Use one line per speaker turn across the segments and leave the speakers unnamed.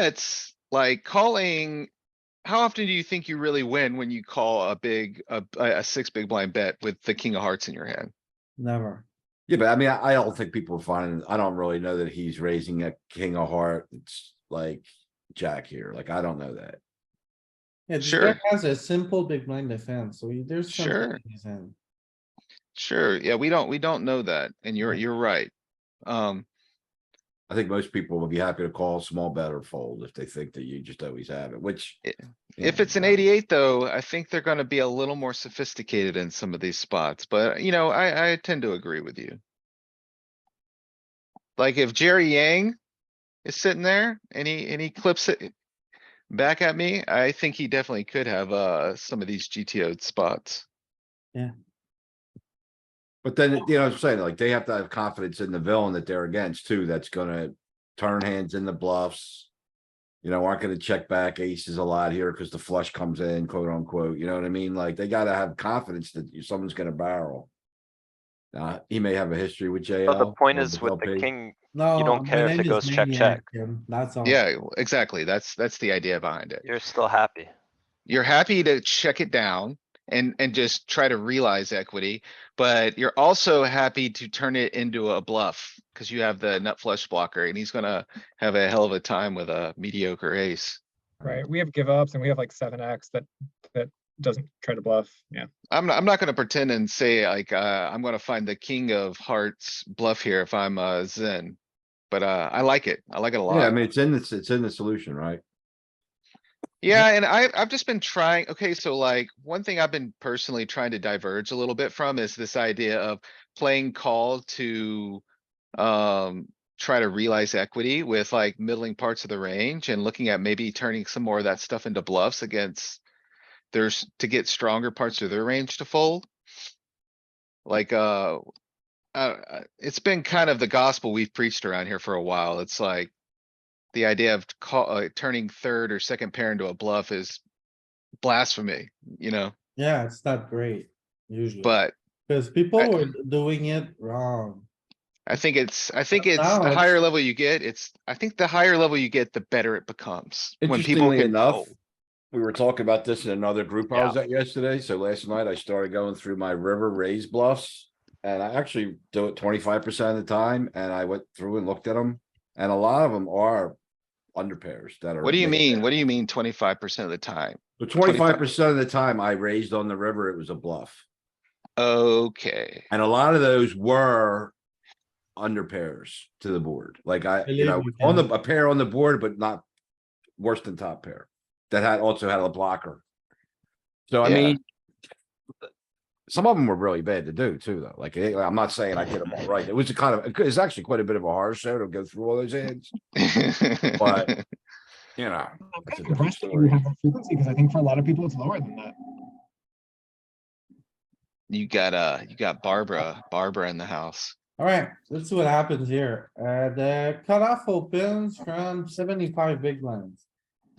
bets, like calling. How often do you think you really win when you call a big, a, a a six big blind bet with the king of hearts in your hand?
never.
Yeah, but I mean, I I don't think people are finding, I don't really know that he's raising a king of heart. It's like jack here. Like, I don't know that.
Yeah, this
Sure.
guy has a simple big blind defense, so he- there's. something
Sure.
in his hand.
Sure, yeah, we don't, we don't know that, and you're, you're right. Um,
I think most people would be happy to call small bet or fold if they think that you just always have it, which.
I-
you
if
know,
it's an eighty-eight though, I think they're gonna be a little more sophisticated in some of these spots, but you know, I, I tend to agree with you. Like if Jerry Yang is sitting there and he, and he clips it back at me, I think he definitely could have, uh, some of these GTO spots.
But then, you know, what I'm saying like they have to have confidence in the villain that they're against too, that's gonna turn hands in the bluffs. You know, aren't gonna check back aces a lot here because the flush comes in, quote unquote, you know what I mean? Like they gotta have confidence that you- someone's gonna barrel. Uh, he may have a history with
But
JL.
the point
or
is with the
LP.
king,
No.
don't
my
care if
name
it
is
goes check,
Maniac,
check.
Jim, That's all.
Yeah, exactly. That's, that's the idea behind it.
you're still happy.
You're happy to check it down and, and just try to realize equity, but you're also happy to turn it into a bluff. Cause you have the nut flush blocker and he's gonna have a hell of a time with a mediocre ace.
Right, we have give ups and we have like seven X that, that doesn't try to bluff, yeah.
I'm, not- I'm not gonna pretend and say like, uh, I'm gonna find the king of hearts bluff here if I'm, uh, Zen. But, uh, I like it. I like it a lot.
Yeah, I mean, it's in this, it's in the solution, right?
Yeah, and I, I've just been trying, okay, so like, one thing I've been personally trying to diverge a little bit from is this idea of playing call to. Um, try to realize equity with like middling parts of the range and looking at maybe turning some more of that stuff into bluffs against. There's to get stronger parts of their range to fold. Like, uh. Uh, uh, it's been kind of the gospel we've preached around here for a while. It's like the idea of call, uh, turning third or second pair into a bluff is blasphemy, you know,
Yeah, it's not great usually,
but
because people
I-
were doing it wrong.
I think it's, I think
But
it's
now
the
it's-
higher level you get, it's, I think the higher level you get, the better it becomes. When people "Oh,
Interestingly
get
enough,
old.
we were talking about this in another group I was at yesterday, so last night I started going through my river raise bluffs. And I actually do it twenty-five percent of the time, and I went through and looked at them, and a lot of them are under pairs that are.
What do you
made
mean?
there.
What do you mean twenty-five percent of the time?
But twenty-five percent of the time I raised on the river, it was a bluff,
Okay,
and a lot of those were under pairs to the board, like I, you
Believe
know,
me,
on the,
Ken.
a pair on the board, but not worse than top pair. That had also had a blocker. So I
Yeah.
mean. Some of them were really bad to do too, though. Like, eh, I'm not saying I did them all right. It was a kind of, it's actually quite a bit of a hard show to go through all those hands,
but
But- you know.
I'm
That's a
kind of
different
impressed that you
story.
have that frequency, because I think for a lot of people, it's lower than that.
you got, uh, you got Barbara, Barbara in the house.
Alright, let's see what happens here. Uh, the cutoff opens from seventy-five big blinds.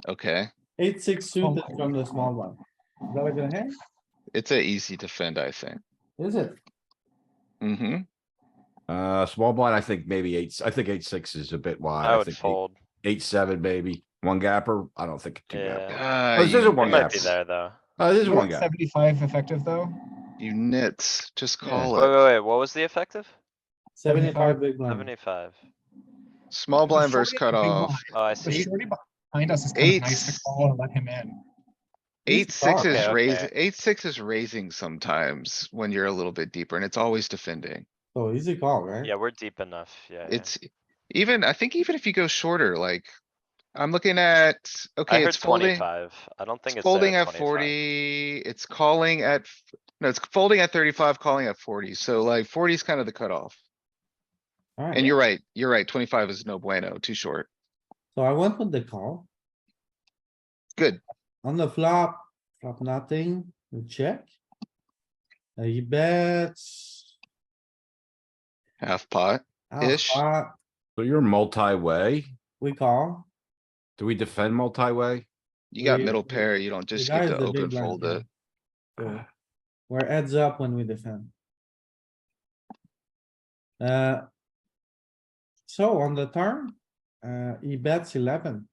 Okay,
Eight, six
Oh
suited
my
from the small one. Is that a good hand?
it's a easy defend, I think.
Is it?
Mm-hmm.
Uh, small blind, I think maybe eight, I think eight, six is a bit wide.
I
I
would
think eight-
fold.
Eight, seven, maybe. One gapper. I don't think. two
Yeah.
gapper.
Uh,
Oh, this is a
It
you
one
might be
gapper.
there though.
Oh, this is
You
one
want
guy.
Seventy-five effective though,
you nits, just
Yeah.
call
Wait,
it.
wait, wait, what was the effective?
Seventy-five big blinds.
Seventy-five.
Small
The
blind versus
40 is a big
cutoff.
blind.
Oh, I
the
see.
shorty behind us is kind of nice to
Eights.
call and let him in.
He's
Eight, six
dark.
is
Okay,
raising,
okay.
eight, six is raising sometimes when you're a little bit deeper and it's always defending.
So Oh, easy call, right?
Yeah, we're deep enough, yeah. yeah.
It's even, I think even if you go shorter, like, I'm looking at,
I
okay,
heard
it's folding.
twenty-five. I don't think
It's
it's there
folding at
25.
forty, it's calling at, f- no, it's folding at thirty-five, calling at forty. So like forty is kind of the cutoff.
Alright,
And you're right, you're right. Twenty-five is no bueno, too short.
So I went with the call.
Good.
On the flop, flop nothing, we check. Uh, he bets.
Half pot.
half
Ish.
pot,
So you're multi-way.
We call.
Do we defend multi-way?
You got
We-
middle
we-
pair. You don't just
The guy
get
is
to
the big
open
blind
fold uh,
here.
it.
So We're heads up when we defend. Uh. So on the turn, uh, he bets eleven.